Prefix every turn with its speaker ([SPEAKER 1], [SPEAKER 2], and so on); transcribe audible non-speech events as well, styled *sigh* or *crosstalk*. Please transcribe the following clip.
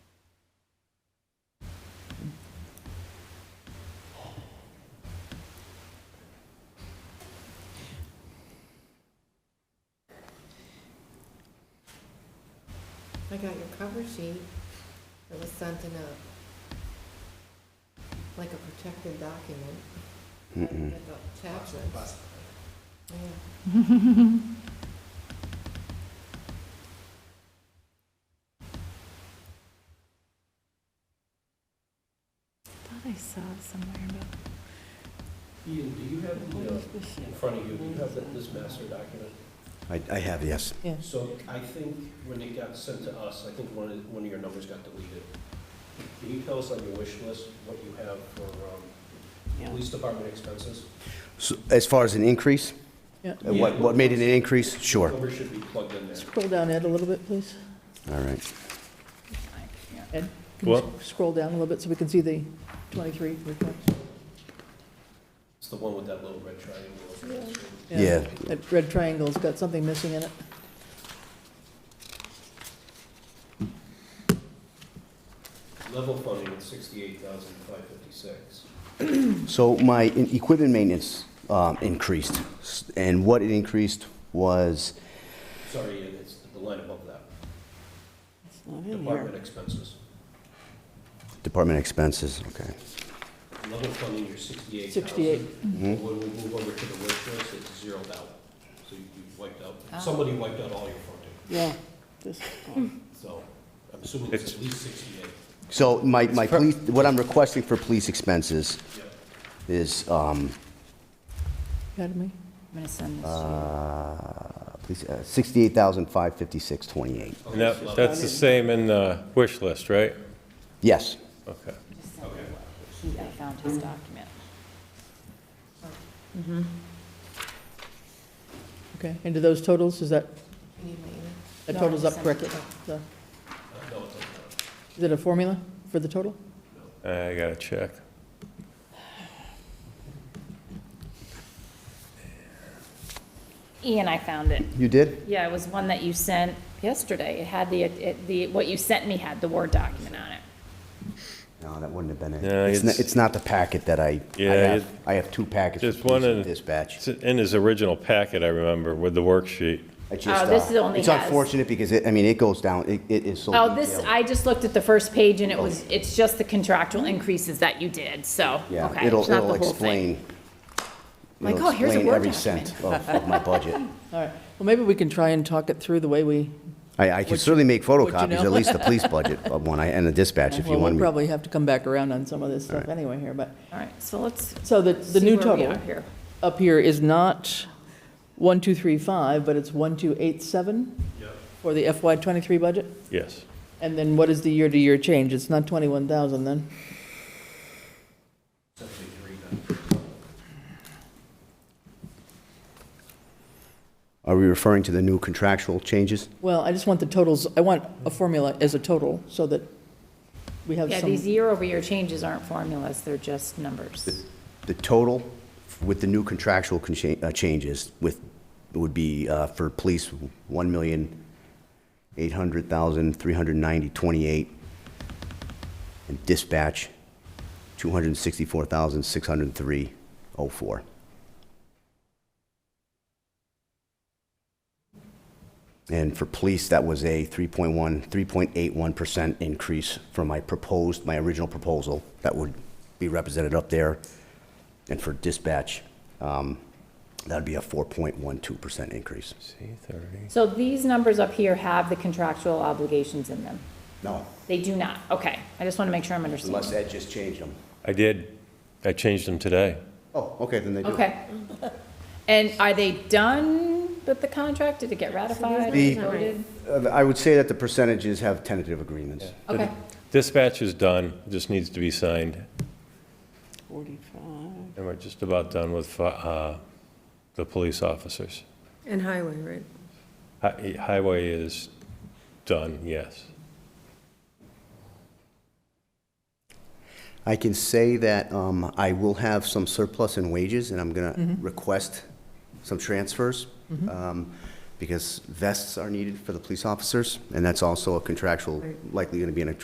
[SPEAKER 1] I got your cover sheet that was sent in a, like a protected document.
[SPEAKER 2] Mm-mm.
[SPEAKER 1] Like a attachment. Yeah.
[SPEAKER 3] thought I saw it somewhere, but.
[SPEAKER 4] Ian, do you have the, uh, in front of you, do you have that- this master document?
[SPEAKER 2] I, I have, yes.
[SPEAKER 4] So I think when it got sent to us, I think one of, one of your numbers got deleted. Can you tell us on your wish list what you have for um, police department expenses?
[SPEAKER 2] So, As far as an increase,
[SPEAKER 5] Yeah.
[SPEAKER 2] Uh, what, what made it an increase? Sure,
[SPEAKER 4] Number should be plugged in there.
[SPEAKER 5] Scroll down, Ed, a little bit, please.
[SPEAKER 2] all right.
[SPEAKER 5] Ed? can you s- Scroll down a little bit so we can see the 23 report.
[SPEAKER 4] It's the one with that little red triangle.
[SPEAKER 2] Yeah.
[SPEAKER 5] That red triangle's got something missing in it.
[SPEAKER 4] Level funding at sixty-eight thousand five fifty-six.
[SPEAKER 2] So my in- equipment maintenance um, increased, S- and what it increased was,
[SPEAKER 4] Sorry, Ian, it's the line above that.
[SPEAKER 6] It's not in
[SPEAKER 4] Department
[SPEAKER 6] here.
[SPEAKER 4] expenses.
[SPEAKER 2] department expenses, okay.
[SPEAKER 4] Level funding, you're sixty-eight thousand.
[SPEAKER 5] 68.
[SPEAKER 2] Mhm.
[SPEAKER 4] When we move over to the wish list, it's zeroed out. So you you wiped
[SPEAKER 3] Oh.
[SPEAKER 4] out, somebody wiped out all your funding.
[SPEAKER 6] Yeah, this is gone.
[SPEAKER 4] So I'm assuming it's at least sixty-eight.
[SPEAKER 2] So my, my police, what I'm requesting for police expenses
[SPEAKER 4] Yep.
[SPEAKER 2] is, um,
[SPEAKER 5] Got me?
[SPEAKER 3] I'm gonna send this to
[SPEAKER 2] uh, police, uh, sixty-eight thousand five fifty-six twenty-eight.
[SPEAKER 4] Okay,
[SPEAKER 7] And
[SPEAKER 4] so
[SPEAKER 7] that,
[SPEAKER 4] level-
[SPEAKER 7] that's the same in the wish list, right?
[SPEAKER 2] Yes,
[SPEAKER 7] Okay.
[SPEAKER 3] you. Just send it. He, I found his document.
[SPEAKER 5] Okay, and do those totals, is that,
[SPEAKER 1] You need my email?
[SPEAKER 5] that
[SPEAKER 3] No,
[SPEAKER 5] totals up
[SPEAKER 3] it's
[SPEAKER 5] correctly? The-
[SPEAKER 4] Uh, No, it doesn't.
[SPEAKER 5] Is it a formula for the total?
[SPEAKER 7] I gotta check.
[SPEAKER 3] Ian, I found it.
[SPEAKER 2] you did?
[SPEAKER 3] Yeah, it was one that you sent yesterday. It had the, it, the, what you sent me had the Word document on it.
[SPEAKER 2] No, that wouldn't have been it.
[SPEAKER 7] No,
[SPEAKER 2] It's, not-
[SPEAKER 7] it's-
[SPEAKER 2] it's not the packet that I, I
[SPEAKER 7] Yeah,
[SPEAKER 2] have,
[SPEAKER 7] it-
[SPEAKER 2] I have two packets.
[SPEAKER 7] Just
[SPEAKER 2] for police
[SPEAKER 7] one
[SPEAKER 2] and
[SPEAKER 7] in-
[SPEAKER 2] Dispatch.
[SPEAKER 7] It's in his original packet, I remember, with the worksheet.
[SPEAKER 2] I just,
[SPEAKER 3] Oh, this
[SPEAKER 2] uh,
[SPEAKER 3] is only
[SPEAKER 2] It's
[SPEAKER 3] has-
[SPEAKER 2] unfortunate because it, I mean, it goes down, it, it is so
[SPEAKER 3] Oh, this,
[SPEAKER 2] detailed.
[SPEAKER 3] I just looked at the first page and it was, it's just the contractual increases that you did, so,
[SPEAKER 2] Yeah,
[SPEAKER 3] okay,
[SPEAKER 2] it'll,
[SPEAKER 3] it's not
[SPEAKER 2] it'll
[SPEAKER 3] the whole thing.
[SPEAKER 2] explain.
[SPEAKER 3] Like,
[SPEAKER 2] it'll
[SPEAKER 3] oh, here's a
[SPEAKER 2] explain
[SPEAKER 3] Word
[SPEAKER 2] every
[SPEAKER 3] document.
[SPEAKER 2] cent of, of
[SPEAKER 3] *laughs*
[SPEAKER 2] my budget.
[SPEAKER 5] All right, well, maybe we can try and talk it through the way we,
[SPEAKER 2] I, I can
[SPEAKER 5] What
[SPEAKER 2] certainly make
[SPEAKER 5] know.
[SPEAKER 2] photocopies, at least
[SPEAKER 3] *laughs*
[SPEAKER 2] the police budget of one, I- and the dispatch if you
[SPEAKER 5] well, we'll
[SPEAKER 2] want me.
[SPEAKER 5] probably have to come back around on some of this stuff anyway here, but,
[SPEAKER 3] All right, so let's
[SPEAKER 5] so the,
[SPEAKER 3] see
[SPEAKER 5] the
[SPEAKER 3] where
[SPEAKER 5] new
[SPEAKER 3] we
[SPEAKER 5] total
[SPEAKER 3] are here.
[SPEAKER 5] up here is not 1235, but it's 1287 for the FY '23 budget?
[SPEAKER 7] Yes.
[SPEAKER 5] And then what is the year-to-year change? It's not 21,000 then?
[SPEAKER 4] It's actually three then.
[SPEAKER 2] Are we referring to the new contractual changes?
[SPEAKER 5] Well, I just want the totals, I want a formula as a total so that we have
[SPEAKER 3] Yeah,
[SPEAKER 5] some,
[SPEAKER 3] these year-over-year changes aren't formulas, they're just numbers.
[SPEAKER 2] The total with the new contractual con- cha- uh, changes with, would be, uh, for police, one million, eight hundred thousand, three hundred ninety, twenty-eight. And dispatch, two hundred and sixty-four thousand, six hundred and three, oh four. And for police, that was a 3.1, 3.81% increase from my proposed, my original proposal that would be represented up there. And for dispatch, um, that'd be a 4.12% increase.
[SPEAKER 7] C thirty.
[SPEAKER 3] So these numbers up here have the contractual obligations in them.
[SPEAKER 2] No,
[SPEAKER 3] They do not, okay. I just want to make sure I'm
[SPEAKER 2] unless
[SPEAKER 3] understanding.
[SPEAKER 2] Ed just changed them.
[SPEAKER 7] I did. I changed them today.
[SPEAKER 2] Oh, okay, then they do.
[SPEAKER 3] Okay. And are they done with the contract? Did it get ratified?
[SPEAKER 2] The-
[SPEAKER 3] Voted?
[SPEAKER 2] Uh, I would say that the percentages have tentative agreements.
[SPEAKER 3] Okay,
[SPEAKER 7] Dispatch is done, just needs to be signed,
[SPEAKER 6] Forty-five.
[SPEAKER 7] and we're just about done with, fi- uh, the police officers.
[SPEAKER 8] And highway, right?
[SPEAKER 7] Hi- Highway is done, yes.
[SPEAKER 2] I can say that um, I will have some surplus in wages, and I'm going to request some transfers, um, because vests are needed for the police officers, and that's also a contractual, likely going to be in a